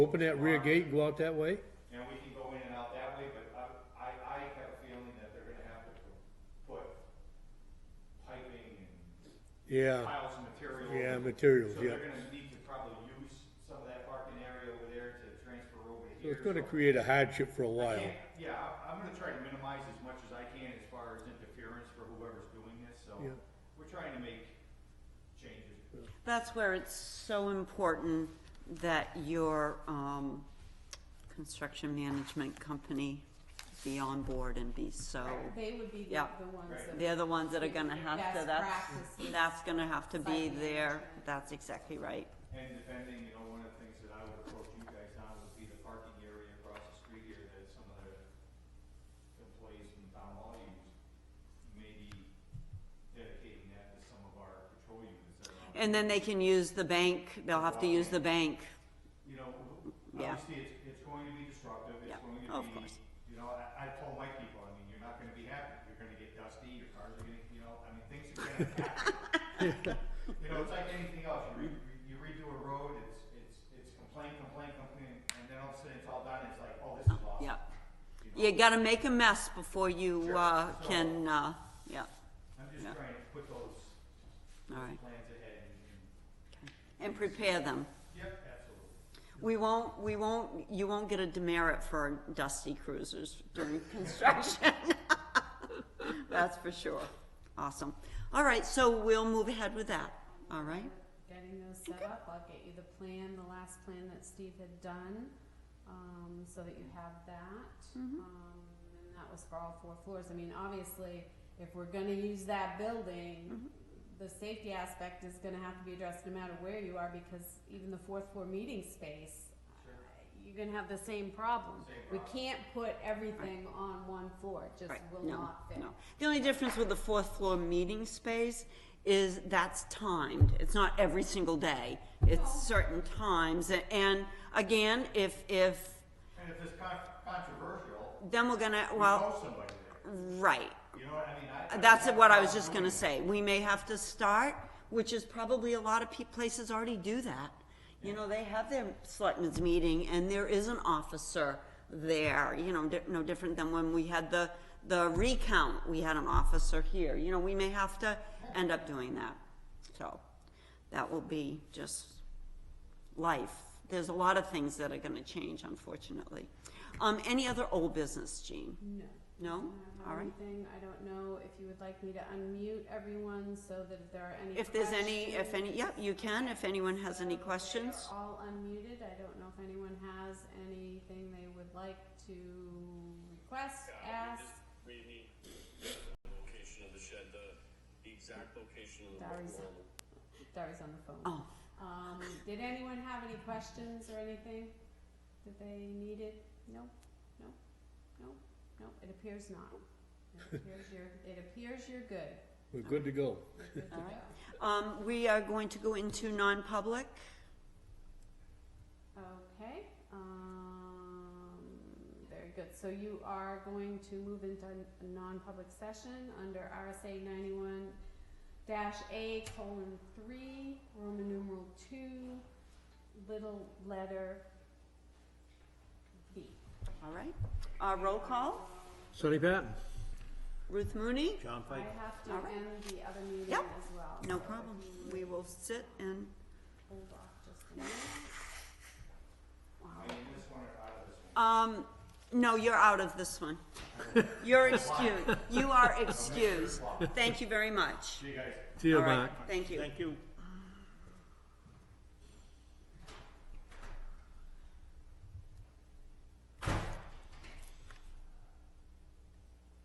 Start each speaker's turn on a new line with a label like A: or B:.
A: Open that rear gate and go out that way?
B: And we can go in and out that way, but I, I, I have a feeling that they're gonna have to put piping and
A: Yeah,
B: piles of material.
A: yeah, materials,
B: So
A: yeah.
B: they're gonna need to probably use some of that parking area over there to transfer over
A: So
B: here.
A: it's gonna create a hardship for a
B: I
A: while.
B: can't- Yeah, I- I'm gonna try to minimize as much as I can as far as interference for whoever's doing this, so
A: Yeah.
B: we're trying to make changes.
C: That's where it's so important that your, um, construction management company be on board and be so,
D: They would be the,
C: Oh. Yeah.
D: the ones that.
C: they're the ones that are gonna have to,
D: Best
C: that's,
D: practices.
C: that's gonna have to be
D: Site
C: there,
D: management.
C: that's exactly right.
B: And depending, you know, one of the things that I would approach you guys on would be the parking area across the street here that some of the employees from town hall use. Maybe dedicating that to some of our patrol units that are on.
C: And then they can use the bank, they'll have to use the bank,
B: You know,
C: Yeah.
B: obviously, it's, it's going to be disruptive,
C: Yeah,
B: it's
C: Oh,
B: going to
C: of
B: be,
C: course.
B: you know, I, I told my people, I mean, you're not gonna be happy, you're gonna get dusty, your cars are gonna, you know, I mean, things are gonna happen. You know, it's like anything else, you re, you redo a road, it's, it's, it's complain, complain, complain, and then all of a sudden it's all done, it's like, oh, this is awesome.
C: yeah.
B: you know?
C: You gotta make a mess before you,
B: Sure.
C: uh,
B: So-
C: can, uh, yeah,
B: I'm just
C: yeah.
B: trying to put those
C: all right,
B: plans ahead and, and,
C: and prepare them.
B: yep, absolutely.
C: We won't, we won't, you won't get a demerit for dusty cruisers during construction. That's for sure. Awesome. All right, so we'll move ahead with that, all right?
D: Getting those set up, I'll get you the plan, the last plan that Steve had done, um, so that you have that.
C: Mm-hmm.
D: Um, and that was for all four floors, I mean, obviously, if we're gonna use that
C: Mm-hmm.
D: building, the safety aspect is gonna have to be addressed no matter where you are, because even the fourth floor meeting space, uh,
B: Sure.
D: you're gonna have the same problem.
B: Same
D: We
B: problem.
D: can't put everything on one floor, it just
C: Right,
D: will
C: no,
D: not fit.
C: no. The only difference with the fourth floor meeting space is that's timed. It's not every single day. It's certain times. A- And again, if, if,
B: And if it's con- controversial,
C: then we're gonna,
B: you
C: well,
B: know somebody there,
C: right.
B: you know what I mean? I- I
C: That's
B: don't have a
C: what I was
B: problem
C: just
B: doing
C: gonna
B: that.
C: say. We may have to start, which is probably a lot of pe- places already do that. You know, they have their selectmen's meeting and there is an officer there, you know, di- no different than when we had the, the recount, we had an officer here. You know, we may have to end up doing that. So, that will be just life. There's a lot of things that are gonna change, unfortunately. Um, any other old business, Jean?
D: No.
C: No?
D: I don't have
C: All right.
D: Um, anything. I don't know if you would like me to unmute everyone so that if there are any.
C: If there's any, if any, yeah, you can, if anyone has any
D: so
C: questions.
D: They're all unmuted. I don't know if anyone has anything they would like to request, ask.
E: We need the location of the shed, the, the exact location of the
D: Dari's,
E: wall.
D: Dari's on the phone.
C: Oh,
D: Um, did anyone have any questions or anything that they needed? No, no, no, no, it appears not. It appears you're, it appears you're good.
A: We're good to go.
D: You're good to
C: All right.
D: go.
C: um, we are going to go into non-public.
D: Okay, um, very good. So you are going to move into a non-public session under RSA ninety-one dash A colon three, Roman numeral two, little letter B.
C: All right, uh, roll call,
A: Sonny Patton?
C: Ruth Mooney?
A: John
D: I have to
C: All right.
D: end the other meeting
C: Yep.
D: as well.
C: No
D: so if
C: problem,
D: you
C: we will sit and,
D: Hold off just a minute.
B: I mean, this one or out of this one.
C: um, no, you're out of this one. You're excused, you are excused. Thank you very much.
B: See you guys.
A: See
C: All right, Thank you.
F: Thank you.